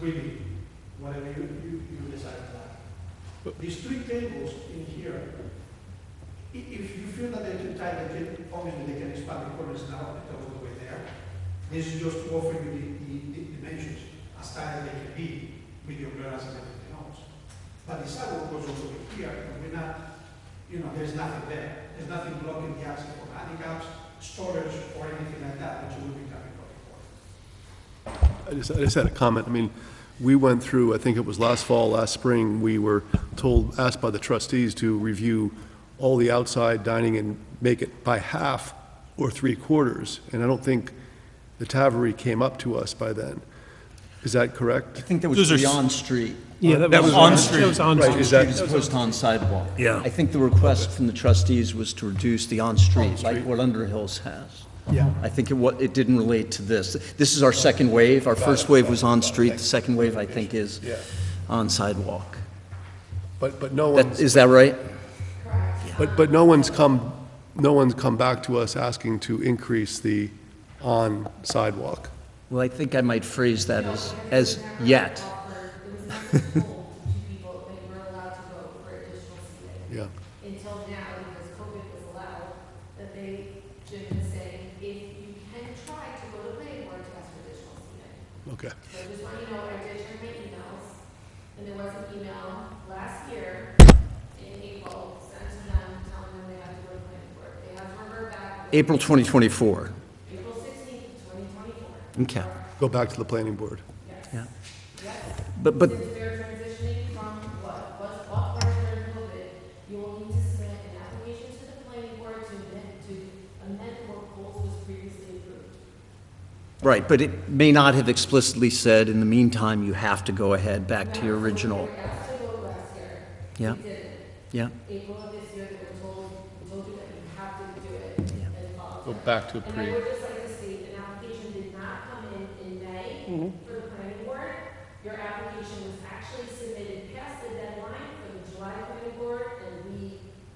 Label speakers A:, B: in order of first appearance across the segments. A: We need, whatever you, you, you decide on. These three tables in here, i- if you feel that they're too tight, they can, obviously they can expand the corners now, and go all the way there. This is just to offer you the, the, the dimensions, as tight as they can be, with your clearance and everything else. But the sidewalk goes all the way here, and we're not, you know, there's nothing there, there's nothing blocking the access for handicaps, storage, or anything like that, which will be coming from the court.
B: I just, I just had a comment. I mean, we went through, I think it was last fall, last spring, we were told, asked by the trustees to review all the outside dining and make it by half or three quarters. And I don't think the Taveri came up to us by then. Is that correct?
C: I think that was
D: Those are s-
C: beyond street.
E: Yeah,
D: That was on street.
E: That was on
B: Right,
E: street.
B: is that-
C: Street as opposed to on sidewalk.
D: Yeah.
C: I think the request from the trustees was to reduce the on-street, like what Underhills has.
E: Yeah.
C: I think it wa, it didn't relate to this. This is our second wave. Our first wave was on-street, the second wave, I think, is
B: Yeah.
C: on sidewalk.
B: But, but no
C: That,
B: one's,
C: is that right?
B: but, but no one's come, no one's come back to us asking to increase the on sidewalk.
C: Well, I think I might phrase that as, as yet.
B: Yeah.
F: Until now, because COVID was allowed, that they, Jim is saying, if you can try to go to planning board to ask for additional seating.
B: Okay.
F: So I just want you to know, I did check my emails, and there was an email last year in April sent to them telling them they had to go to planning board. They have to revert back
C: April 2024.
F: April sixteenth, twenty twenty-four.
C: Okay.
B: Go back to the planning board.
C: Yeah. But, but
F: Since they're transitioning from what was what part during COVID, you will need to submit an application to the planning board to amend, to amend what goals was previously approved.
C: Right, but it may not have explicitly said, in the meantime, you have to go ahead back to your original. Yeah. Yeah,
F: April of this year, they were told, told you that you have to do it and uh, follow.
B: Go back to
F: And I would just like to state, an application did not come in in May
A: Mm-hmm.
F: for the planning board. Your application was actually submitted past the deadline for the July planning board, and we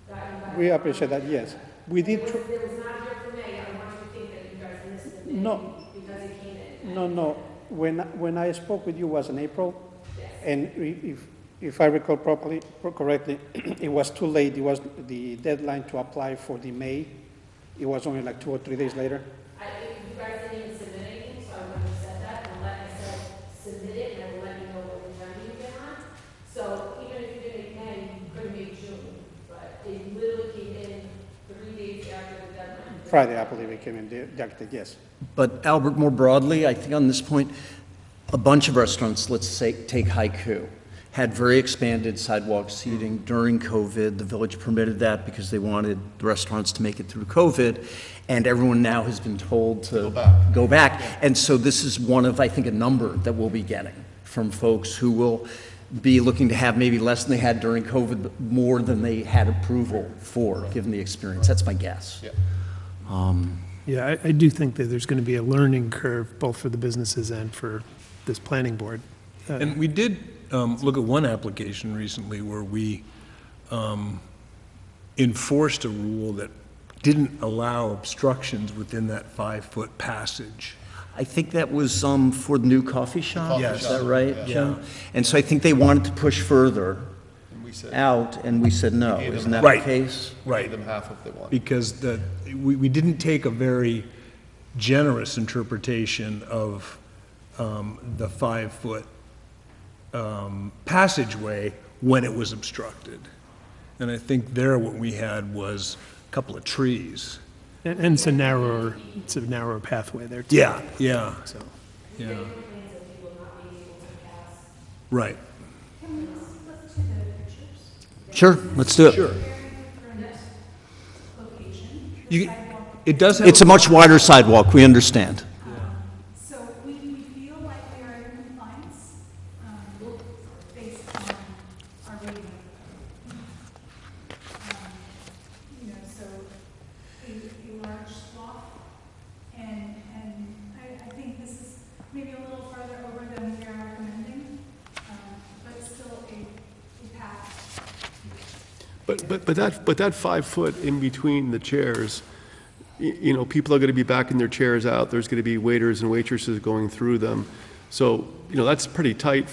F: got you by.
A: We appreciate that, yes. We
F: It
A: did,
F: was,
A: tr-
F: it was not here for May, I don't want you to think that you guys missed the May.
A: No.
F: Because it came in.
A: no, no, when, when I spoke with you was in April, and i- if, if I recall properly, correctly, it was too late, it was the deadline to apply for the May, it was only like two or three days later.
F: I, you guys didn't even submit anything, so I wouldn't have said that, and let, I said, submit it, and I will let you know what the timing you get on. So even if you didn't make May, you could have made June, but it literally came in three days after the deadline.
A: Friday, I believe it came in, the- the, architect, yes.
C: but Albert, more broadly, I think on this point, a bunch of restaurants, let's say, take Haiku, had very expanded sidewalk seating during COVID. The village permitted that because they wanted the restaurants to make it through COVID, and everyone now has been told to. Go back. And so this is one of, I think, a number that we'll be getting from folks who will be looking to have maybe less than they had during COVID, but more than they had approval for, given the experience. That's my guess.
E: Yeah, I, I do think that there's going to be a learning curve, both for the businesses and for this planning board.
D: And we did um, look at one application recently where we um, enforced a rule that didn't allow obstructions within that five-foot passage.
C: I think that was um, for the new coffee shop,
D: coffee
C: is
D: shop,
C: that right, Jim? And so I think they wanted to push further out, and we said no, isn't that the
D: Right.
C: case?
D: Right. them half if they want. Because the, we, we didn't take a very generous interpretation of um, the five-foot um, passageway when it was obstructed. And I think there what we had was a couple of trees.
E: And, and it's a narrower, it's a narrower pathway there, too.
D: Yeah, yeah,
E: So,
D: yeah,
F: Complaints of people not being able to pass.
D: right.
C: Sure, let's do it.
D: You, it does have.
C: It's a much wider sidewalk, we understand.
G: So we, we feel like we are in compliance, um, based on our reading. Um, You know, so a, a large swath, and, and I, I think this is maybe a little farther over than we are recommending, um, but still a, a path.
B: But, but, but that, but that five foot in between the chairs, y- you know, people are gonna be backing their chairs out, there's gonna be waiters and waitresses going through them. So, you know, that's pretty tight